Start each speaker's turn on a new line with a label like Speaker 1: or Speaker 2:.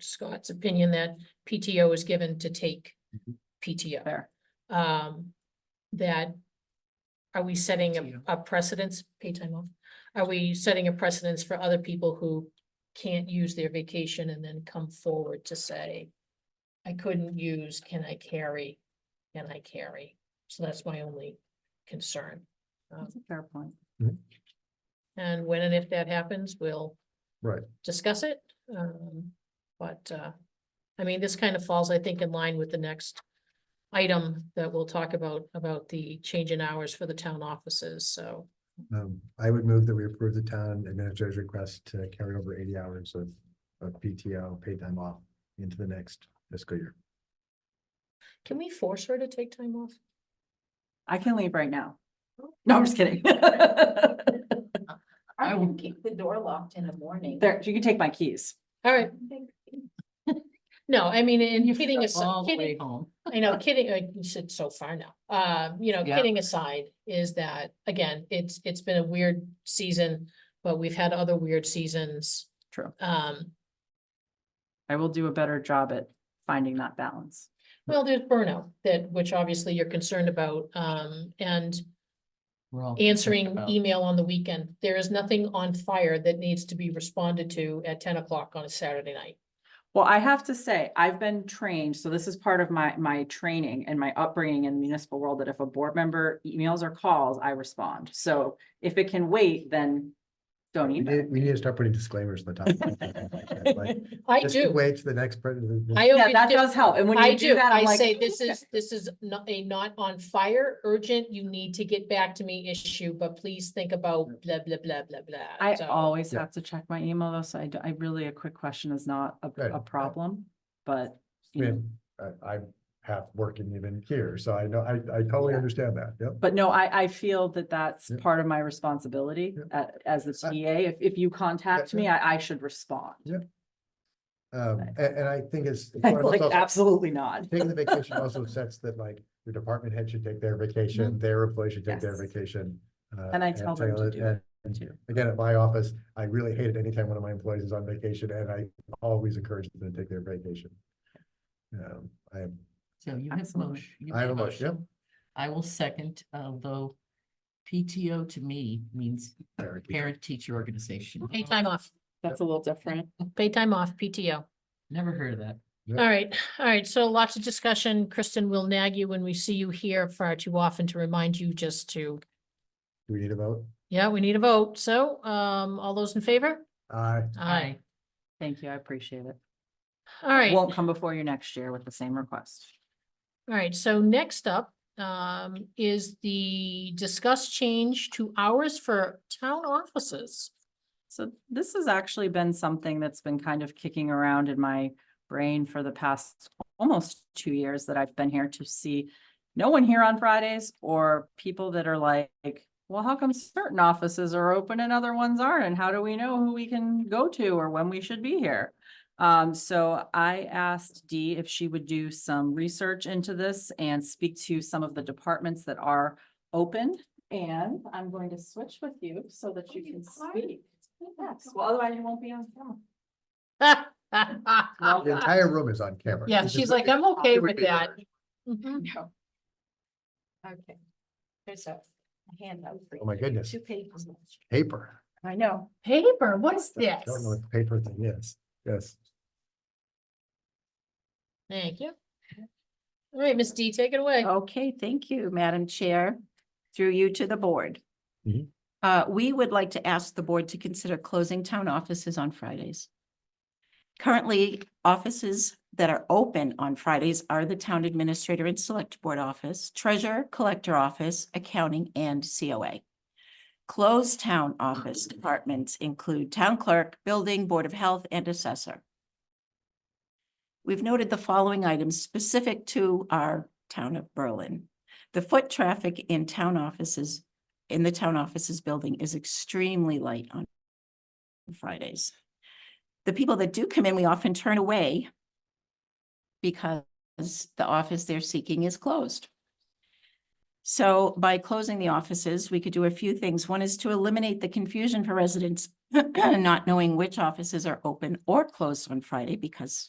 Speaker 1: Scott's opinion that PTO is given to take
Speaker 2: Mhm.
Speaker 1: PTO.
Speaker 3: Fair.
Speaker 1: Um, that, are we setting
Speaker 2: PTO.
Speaker 1: a- a precedence, pay time off? Are we setting a precedence for other people who can't use their vacation and then come forward to say, I couldn't use, can I carry? Can I carry? So that's my only concern. Um,
Speaker 3: That's a fair point.
Speaker 1: And when and if that happens, we'll
Speaker 2: Right.
Speaker 1: discuss it. Um, but, uh, I mean, this kind of falls, I think, in line with the next item that we'll talk about, about the change in hours for the town offices, so.
Speaker 2: Um, I would move that we approve the town administrator's request to carry over eighty hours of, of PTO, paid time off into the next fiscal year.
Speaker 1: Can we force her to take time off?
Speaker 3: I can leave right now. No, I'm just kidding. I
Speaker 4: I
Speaker 3: will-
Speaker 4: will keep the door locked in the morning.
Speaker 3: There, you can take my keys.
Speaker 1: All right, no, I mean, and kidding
Speaker 3: All
Speaker 1: aside,
Speaker 3: the way
Speaker 1: kidding,
Speaker 3: home.
Speaker 1: I know, kidding, uh, you said so far now, uh, you know,
Speaker 3: Yeah.
Speaker 1: kidding aside is that, again, it's, it's been a weird season, but we've had other weird seasons.
Speaker 3: True.
Speaker 1: Um,
Speaker 3: I will do a better job at finding that balance.
Speaker 1: Well, there's burnout that, which obviously you're concerned about, um, and answering email on the weekend. There is nothing on fire that needs to be responded to at ten o'clock on a Saturday night.
Speaker 3: Well, I have to say, I've been trained, so this is part of my, my training and my upbringing in the municipal world, that if a board member emails or calls, I respond. So if it can wait, then don't
Speaker 2: We
Speaker 3: email.
Speaker 2: need, we need to start putting disclaimers at the top. Like,
Speaker 1: I
Speaker 2: just to
Speaker 1: do.
Speaker 2: Wait for the next. person.
Speaker 1: I
Speaker 3: Yeah,
Speaker 1: always
Speaker 3: that
Speaker 1: do.
Speaker 3: does help. And when
Speaker 1: I
Speaker 3: you do
Speaker 1: do.
Speaker 3: that, I'm
Speaker 1: I
Speaker 3: like.
Speaker 1: say this is, this is not a not on fire urgent. You need to get back to me issue, but please think about blah, blah, blah, blah, blah.
Speaker 3: I
Speaker 1: So,
Speaker 3: always
Speaker 2: Yeah.
Speaker 3: have to check my email though, so I, d- I really, a quick question is not a,
Speaker 2: Right,
Speaker 3: a
Speaker 2: right.
Speaker 3: problem,
Speaker 2: I
Speaker 3: but. you know,
Speaker 2: mean, I, I have working even here, so I know, I, I totally
Speaker 3: Yeah.
Speaker 2: understand that, yep.
Speaker 3: But no, I, I feel that that's
Speaker 2: Yeah.
Speaker 3: part of my responsibility a- as the
Speaker 2: I-
Speaker 3: TA. If, if you contact
Speaker 2: yeah.
Speaker 3: me, I, I should respond.
Speaker 2: Um,
Speaker 3: Right.
Speaker 2: and, and I think it's. it's one of those
Speaker 3: Like,
Speaker 2: also-
Speaker 3: absolutely not.
Speaker 2: Taking the vacation also sets that like your department head should take their vacation, their employee should take their
Speaker 3: Mm-hmm. Yes.
Speaker 2: vacation. uh,
Speaker 3: And I tell them to
Speaker 2: Taylor-
Speaker 3: do that
Speaker 2: and-
Speaker 3: too.
Speaker 2: Again, at my office, I really hate it anytime one of my employees is on vacation and I always encourage them to take their vacation. Um, I am,
Speaker 5: So you have
Speaker 3: Absolutely.
Speaker 5: motion. you
Speaker 2: I
Speaker 5: made
Speaker 2: have a motion.
Speaker 5: I will second, uh, although PTO to me means
Speaker 2: Parent teacher.
Speaker 5: parent teacher organization.
Speaker 1: Pay time off,
Speaker 3: That's a little different.
Speaker 1: pay time off, PTO.
Speaker 5: Never heard of that.
Speaker 2: Yep.
Speaker 1: All right, all right, so lots of discussion. Kristen will nag you when we see you here far too often to remind you just to,
Speaker 2: Do we need a vote?
Speaker 1: yeah, we need a vote. So, um, all those in favor?
Speaker 2: Aye.
Speaker 1: Aye.
Speaker 3: Thank you. I appreciate it.
Speaker 1: All right, all
Speaker 3: Won't come before you next year with the same request.
Speaker 1: right, so next up, um, is the discuss change to hours for town offices.
Speaker 3: So this has actually been something that's been kind of kicking around in my brain for the past almost two years that I've been here to see no one here on Fridays or people that are like, well, how come certain offices are open and other ones aren't? And how do we know who we can go to or when we should be here? Um, so I asked Dee if she would do some research into this and speak to some of the departments that are open. And I'm going to switch with you so that you can speak. Yes, well, otherwise you won't be on camera.
Speaker 2: The
Speaker 1: Oh, Yeah,
Speaker 2: entire room is on camera. This is-
Speaker 1: she's like, I'm okay
Speaker 2: it would
Speaker 1: with
Speaker 2: be
Speaker 1: that.
Speaker 2: hard.
Speaker 1: Mhm.
Speaker 4: No. Okay. There's a handout. for
Speaker 2: Oh, my
Speaker 4: you.
Speaker 2: goodness.
Speaker 4: Two pages.
Speaker 2: Paper.
Speaker 4: I know.
Speaker 1: Paper, what's
Speaker 2: I Don't know
Speaker 1: this?
Speaker 2: what the paper thing is. Yes.
Speaker 1: Thank you. All right, Miss D, take it away.
Speaker 6: Okay, thank you, Madam Chair, through you to the board.
Speaker 2: Mhm.
Speaker 6: Uh, we would like to ask the board to consider closing town offices on Fridays. Currently, offices that are open on Fridays are the Town Administrator and Select Board Office, Treasurer, Collector Office, Accounting, and COA. Closed town office departments include Town Clerk, Building, Board of Health, and Assessor. We've noted the following items specific to our town of Berlin. The foot traffic in town offices, in the town offices building is extremely light on Fridays. The people that do come in, we often turn away because the office they're seeking is closed. So by closing the offices, we could do a few things. One is to eliminate the confusion for residents not knowing which offices are open or closed on Friday because